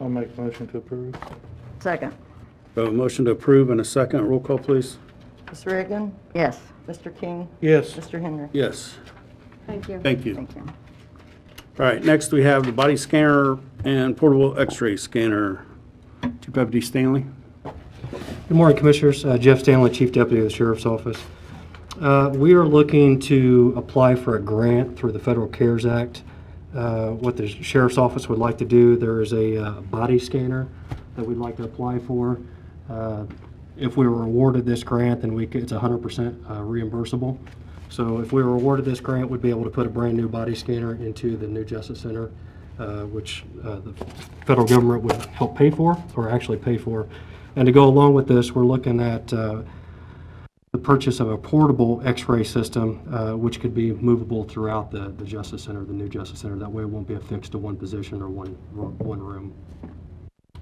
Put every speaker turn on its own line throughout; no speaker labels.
I'll make a motion to approve.
Second.
We have a motion to approve and a second. Roll call, please.
Ms. Reagan,
Yes.
Mr. King,
Yes.
Mr. Henry.
Yes,
Thank you.
thank you.
Thank you.
All right, next we have the body scanner and portable x-ray scanner. Chief Deputy Stanley?
Good morning, Commissioners. Uh, Jeff Stanley, Chief Deputy of the Sheriff's Office. Uh, We are looking to apply for a grant through the Federal CARES Act. Uh, What the Sheriff's Office would like to do, there is a uh, body scanner that we'd like to apply for. Uh, If we were awarded this grant, then we, could- it's 100% uh, reimbursable. So if we were awarded this grant, we'd be able to put a brand-new body scanner into the new Justice Center, uh, which uh, the federal government would help pay for, or actually pay for. And to go along with this, we're looking at uh, the purchase of a portable x-ray system, uh, which could be movable throughout the the Justice Center, the new Justice Center. That way it won't be affixed to one position or one one room.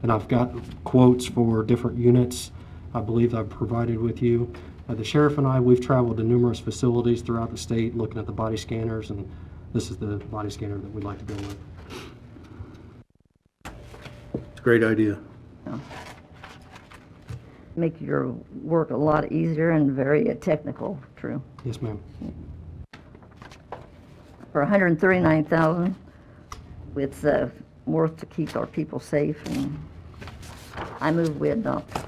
And I've got quotes for different units I believe I've provided with you. Uh, The sheriff and I, we've traveled to numerous facilities throughout the state looking at the body scanners, and this is the body scanner that we'd like to go with.
It's a great idea.
Make your work a lot easier and very uh, technical, true.
Yes, ma'am.
For 139,000, it's uh, worth to keep our people safe, and I move we adopt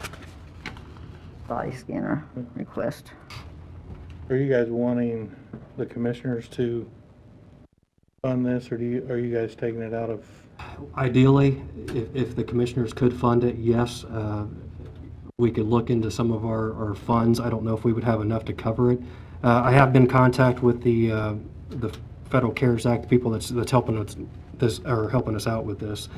body scanner request.
Are you guys wanting the commissioners to fund this, or do you, are you guys taking it out of?
Ideally, if, if the commissioners could fund it, yes, uh, we could look into some of our, our funds. I don't know if we would have enough to cover it. Uh, I have been in contact with the, uh, the Federal CARES Act, the people that's, that's helping us, this, or helping us out with this.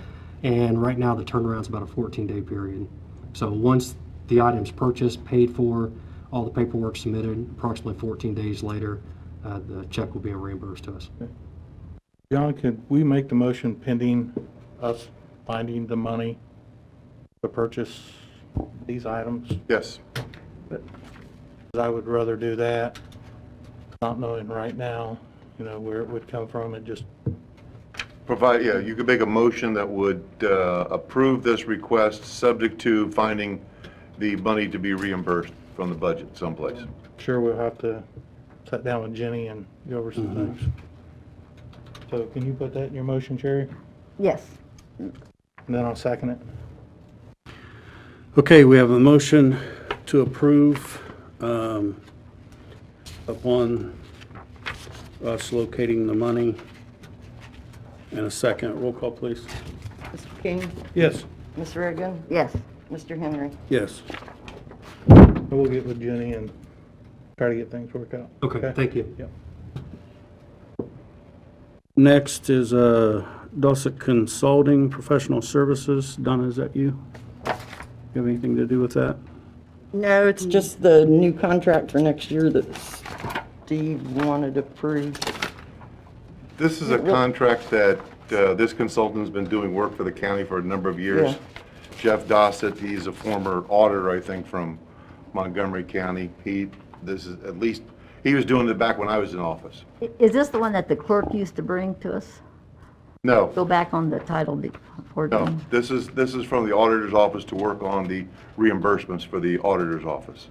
And right now, the turnaround's about a 14-day period. So once the item's purchased, paid for, all the paperwork submitted, approximately 14 days later, uh, the check will be reimbursed to us.
John, could we make the motion pending us finding the money to purchase these items?
Yes.
'Cause I would rather do that, not knowing right now, you know, where it would come from, and just
Provide, yeah, you could make a motion that would uh, approve this request, subject to finding the money to be reimbursed from the budget someplace.
sure we'll have to sit down with Jenny and go over some things. So can you put that in your motion, Sherry?
Yes.
And then I'll second it.
Okay, we have a motion to approve um, upon us locating the money. And a second. Roll call, please.
Mr. King,
Yes.
Ms. Reagan,
Yes.
Mr. Henry.
Yes.
We'll get with Jenny and try to get things worked out.
Okay, thank you.
Yep.
Next is uh, Dosset Consulting Professional Services. Donna, is that you? You have anything to do with that?
No, it's just the new contract for next year that Steve wanted approved.
This is a contract that uh, this consultant's been doing work for the county for a number of years.
Yeah.
Jeff Dossett, he's a former auditor, I think, from Montgomery County. He, this is at least, he was doing it back when I was in office.
I- Is this the one that the clerk used to bring to us?
No,
Go back on the title before.
No, this is, this is from the auditor's office to work on the reimbursements for the auditor's office.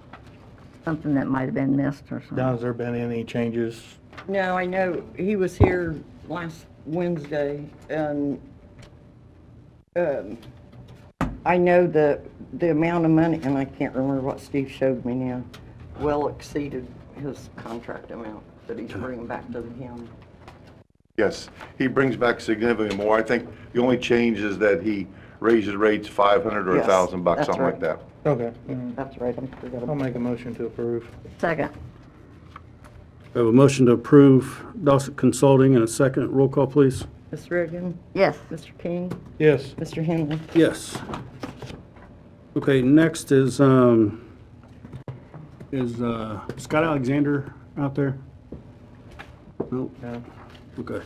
Something that might have been missed or something.
Don, has there been any changes?
No, I know, he was here last Wednesday, and um, I know the, the amount of money, and I can't remember what Steve showed me now, well exceeded his contract amount that he's bringing back to the county.
Yes, he brings back significantly more. I think the only change is that he raises rates 500 or
Yes,
1,000 bucks,
that's
something like
right.
that.
Okay.
That's right, I forgot
I'll
about
make a motion to approve.
Second.
We have a motion to approve Dosset Consulting and a second. Roll call, please.
Ms. Reagan,
Yes.
Mr. King,
Yes.
Mr. Henry.
Yes. Okay, next is, um, is, uh, Scott Alexander out there? Nope.
No.
Okay.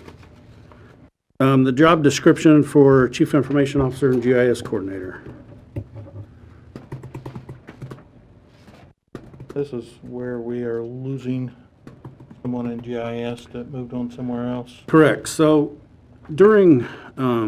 Um, the job description for Chief Information Officer and GIS Coordinator.
This is where we are losing someone in GIS that moved on somewhere else.
Correct. So during, um,